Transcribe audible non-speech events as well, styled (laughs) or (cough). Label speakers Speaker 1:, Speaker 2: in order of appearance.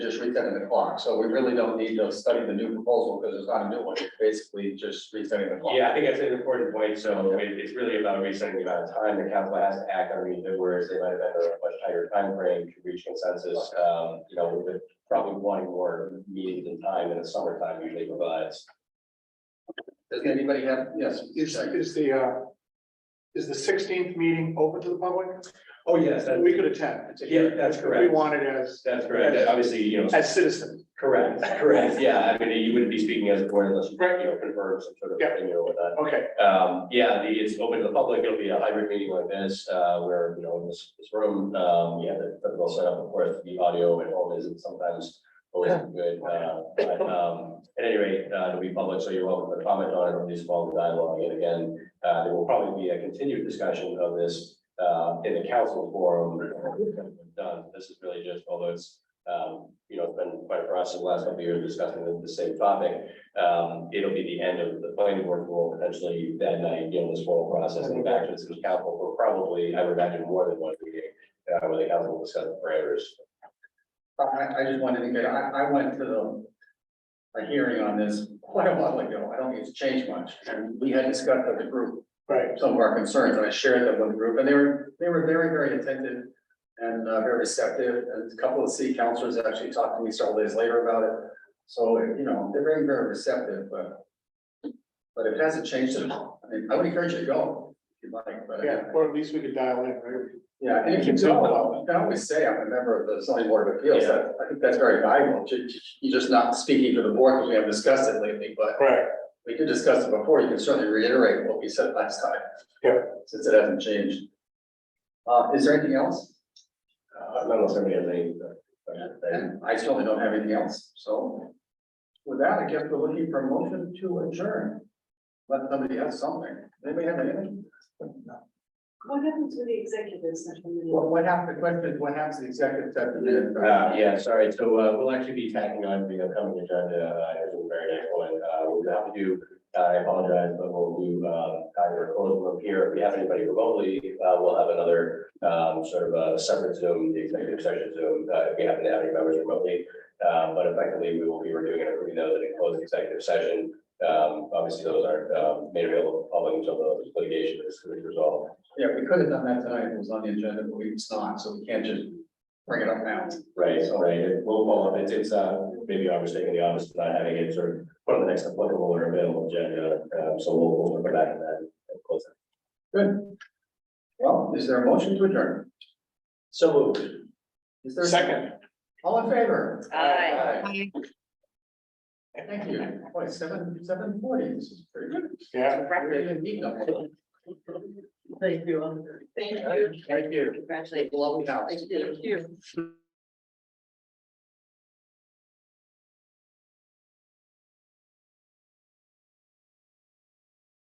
Speaker 1: just resetting the clock, so we really don't need to study the new proposal, because it's not a new one, it's basically just resetting the clock.
Speaker 2: Yeah, I think that's an important point, so it, it's really about resetting the amount of time the council has to act on these, whereas they might have had a much tighter timeframe to reach consensus, um, you know, with the- probably wanting more meetings and time in the summertime usually provides.
Speaker 1: Does anybody have, yes?
Speaker 3: Is, is the, uh, is the sixteenth meeting open to the public?
Speaker 2: Oh, yes, that-
Speaker 3: We could attend. It's a
Speaker 2: Yeah,
Speaker 3: hearing.
Speaker 2: that's
Speaker 3: If We
Speaker 2: correct.
Speaker 3: wanted as,
Speaker 2: that's correct, That obviously, you know,
Speaker 3: as citizens.
Speaker 2: correct, correct,
Speaker 3: (laughs)
Speaker 2: yeah, I mean, you wouldn't be speaking as a board unless you, you know, confirm some sort of
Speaker 3: Yeah.
Speaker 2: opinion or whatnot.
Speaker 3: Okay,
Speaker 2: Um, yeah, the, it's open to the public, it'll be a hybrid meeting like this, uh, where, you know, in this, this room, um, yeah, the, the set up, of course, the audio at home isn't sometimes always good, uh, but, um, at any rate, uh, it'll be public, so you're welcome to comment on it, or at least follow the dialogue, and again, uh, there will probably be a continued discussion of this, uh, in the council forum. Done, this is really just, although it's, um, you know, it's been quite a process the last couple of years discussing the- the same topic, um, it'll be the end of the planning board will potentially that night, you know, this whole process and back to the city council for probably, I would imagine, more than one meeting. Uh, where the council will discuss the parameters.
Speaker 1: I, I just wanted to get, I, I went to the. A hearing on this quite a while ago, I don't think it's changed much, and we had discussed with the group,
Speaker 3: right.
Speaker 1: some of our concerns, and I shared them with the group, and they were, they were very, very attentive. And uh, very receptive, and a couple of city councilors actually talked to me several days later about it, so, you know, they're very, very receptive, but. But if it hasn't changed at all, I mean, I would encourage you to go, if you'd like, but. uh,
Speaker 3: Yeah, or at least we could dial in, right?
Speaker 1: Yeah, and if you don't, well, you can always say I'm a member of the zoning board of appeals, that, I think that's very valuable, You- you're just not speaking for the board, because we haven't discussed it lately, but
Speaker 3: Right.
Speaker 1: we did discuss it before, you can certainly reiterate what we said last time.
Speaker 3: Yeah.
Speaker 1: Since it hasn't changed. Uh, is there anything else?
Speaker 2: Uh, not unless somebody has any. uh,
Speaker 1: And I certainly don't have anything else, so. With that, I guess we're looking for a motion to adjourn. Let somebody have something, anybody have anything?
Speaker 4: What happened to the executive session?
Speaker 1: What, what happened, the question is, what happens to the executive session?
Speaker 2: Uh, yeah, sorry, so, uh, we'll actually be tacking on the upcoming agenda, uh, as the very next one, uh, we'll have to do. uh, I apologize, but we'll do, uh, either close room here, if we have anybody remotely, uh, we'll have another, um, sort of a separate Zoom, the executive session Zoom, uh, if we happen to have any members remotely. Um, but effectively, we will be reviewing and approving those in a closed executive session. Um, obviously, those aren't, um, made available to the public until the litigation is fully resolved.
Speaker 1: Yeah, we could have done that tonight, it was on the agenda, but we- it's not, so we can't just bring it up now.
Speaker 2: Right, so right, it will follow up, it's, it's, uh, maybe our mistake in the office, of not having it sort of put on the next applicable or available agenda, um, so we'll, we'll go back and then close it.
Speaker 1: Good. Well, is there a motion to adjourn?
Speaker 2: So moved.
Speaker 1: Is there? a
Speaker 3: Second.
Speaker 1: All in favor?
Speaker 4: Aye.
Speaker 1: Aye. Thank you. Boy, seven, seven forty, this is pretty good.
Speaker 3: Yeah.
Speaker 1: We didn't need them.
Speaker 4: Thank you. Thank you.
Speaker 1: Thank you.
Speaker 4: Congratulations.
Speaker 1: Well, we have.
Speaker 4: Thank you.